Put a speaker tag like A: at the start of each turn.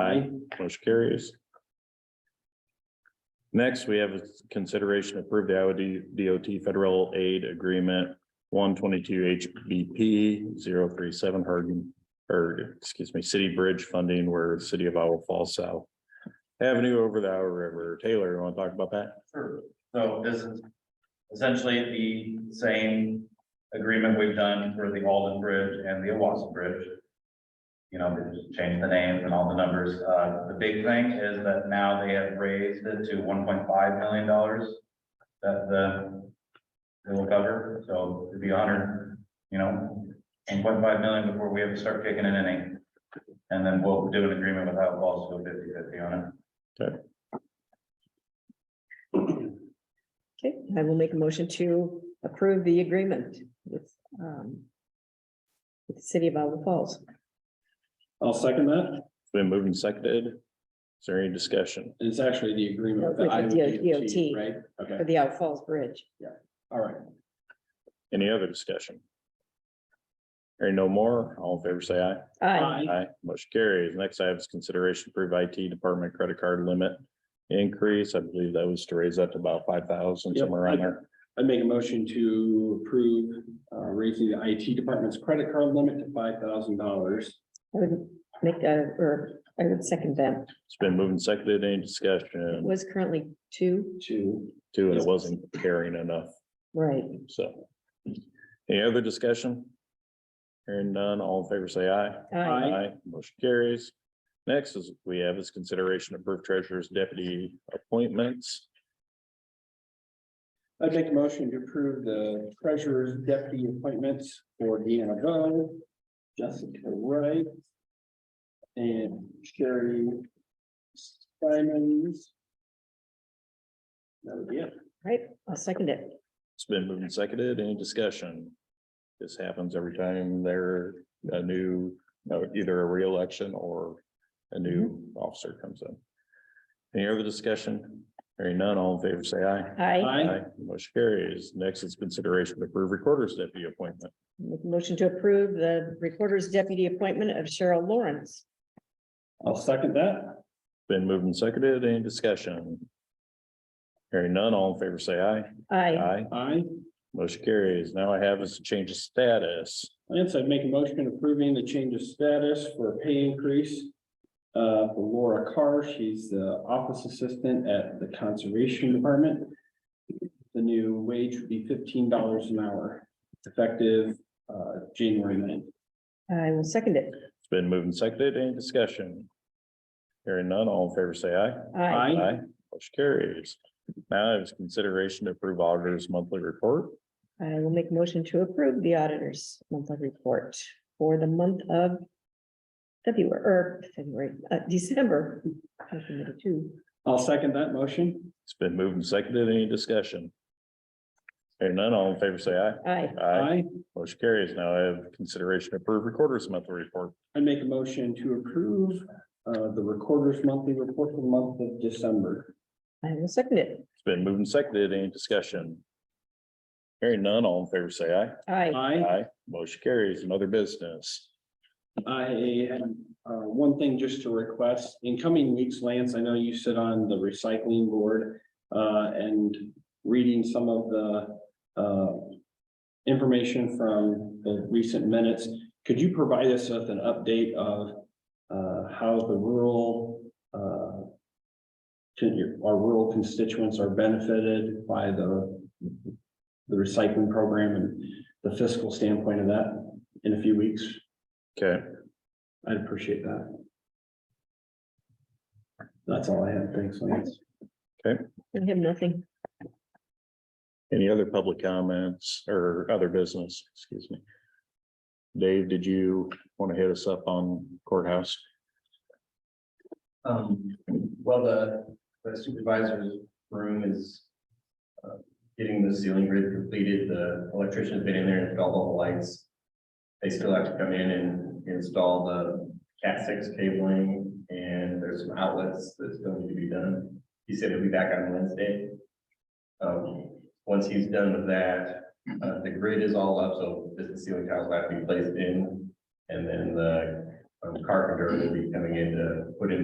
A: Aye. Motion carries. Next, we have a consideration to approve the Iowa DOT Federal Aid Agreement one twenty-two HBP 037 Hardin, or excuse me, City Bridge Funding where City of Iowa Falls South Avenue over the Iowa River. Taylor, you want to talk about that?
B: Sure, so this is essentially the same agreement we've done for the Alden Bridge and the Owasso Bridge. You know, they just changed the names and all the numbers, uh, the big thing is that now they have raised it to one point five million dollars. That the, it will cover, so it'd be honored, you know, one point five million before we have to start kicking in any. And then we'll do an agreement with Outlaws, go fifty fifty on it.
C: Okay, I will make a motion to approve the agreement with, um, with the city of Iowa Falls.
D: I'll second that.
A: It's been moved and seconded. Is there any discussion?
D: And It's actually the agreement with
C: With
D: the
C: the
D: Iowa
C: DOT.
D: DOT, right?
C: For
D: Okay,
C: the Iowa Falls Bridge.
D: all right.
A: Any other discussion? Hearing no more, all in favor, say aye.
C: Aye.
A: Aye, motion carries. Next I have is consideration to approve IT department credit card limit increase. I believe that was to raise that to about five thousand,
D: Yep.
A: somewhere around there.
D: I make a motion to approve uh, raising the IT department's credit card limit to five thousand dollars.
C: I would make a, or I would second that.
A: It's been moved and seconded. Any
C: It
A: discussion?
C: was currently two,
D: To,
A: Two, and it wasn't carrying enough,
C: right?
A: so. Any other discussion? Hearing none, all in favor, say aye.
C: Aye.
D: Aye.
A: Motion carries. Next is, we have is consideration of proof treasurer's deputy appointments.
D: I make a motion to approve the treasurer's deputy appointments for Deanna Bowe, Jessica Wright, and Sherry Simons. That would be it.
C: Right, I'll second it.
A: It's been moved and seconded. Any discussion? This happens every time there a new, no, either a reelection or a new
C: Mm-hmm.
A: officer comes in. Any other discussion? Hearing none, all in favor, say aye.
C: Aye.
D: Aye.
A: Motion carries. Next is consideration to approve recorder's deputy appointment.
C: Make a motion to approve the recorder's deputy appointment of Cheryl Lawrence.
D: I'll second that.
A: Been moved and seconded. Any discussion? Hearing none, all in favor, say aye.
C: Aye.
A: Aye.
D: Aye.
A: Motion carries. Now I have is a change of status.
D: Lance, I'd make a motion approving the change of status for a pay increase. Uh, for Laura Carr, she's the office assistant at the Conservation Department. The new wage would be fifteen dollars an hour, effective, uh, January 9th.
C: I will second it.
A: It's been moved and seconded. Any discussion? Hearing none, all in favor, say aye.
C: Aye.
A: Motion carries. Now is consideration to approve auditor's monthly report.
C: I will make a motion to approve the auditor's monthly report for the month of February, or February, uh, December. I committed two.
D: I'll second that motion.
A: It's been moved and seconded. Any discussion? Hearing none, all in favor, say aye.
C: Aye,
D: Aye.
A: Motion carries. Now I have consideration to approve recorder's monthly report.
D: I make a motion to approve, uh, the recorder's monthly report for the month of December.
C: I will second it.
A: It's been moved and seconded. Any discussion? Hearing none, all in favor, say aye.
C: Aye,
D: Aye.
A: Motion carries. Another business.
D: I had uh, one thing just to request. In coming weeks, Lance, I know you sit on the recycling board uh, and reading some of the uh, information from the recent minutes. Could you provide us with an update of uh, how the rural uh, can your, our rural constituents are benefited by the the recycling program and the fiscal standpoint of that in a few weeks?
A: Okay,
D: I'd appreciate that. That's all I have. Thanks, Lance.
C: I have nothing.
A: any other public comments or other business? Excuse me. Dave, did you want to hit us up on courthouse?
B: Um, well, the the supervisor's room is. uh, Getting the ceiling grid completed, the electrician's been in there and installed all the lights. They still have to come in and install the cat six cabling and there's some outlets that still need to be done. He said he'll be back on Wednesday. Um, once he's done with that, uh, the grid is all up, so just the ceiling tiles will have to be placed in. And then the um, carpenter will be coming in to put in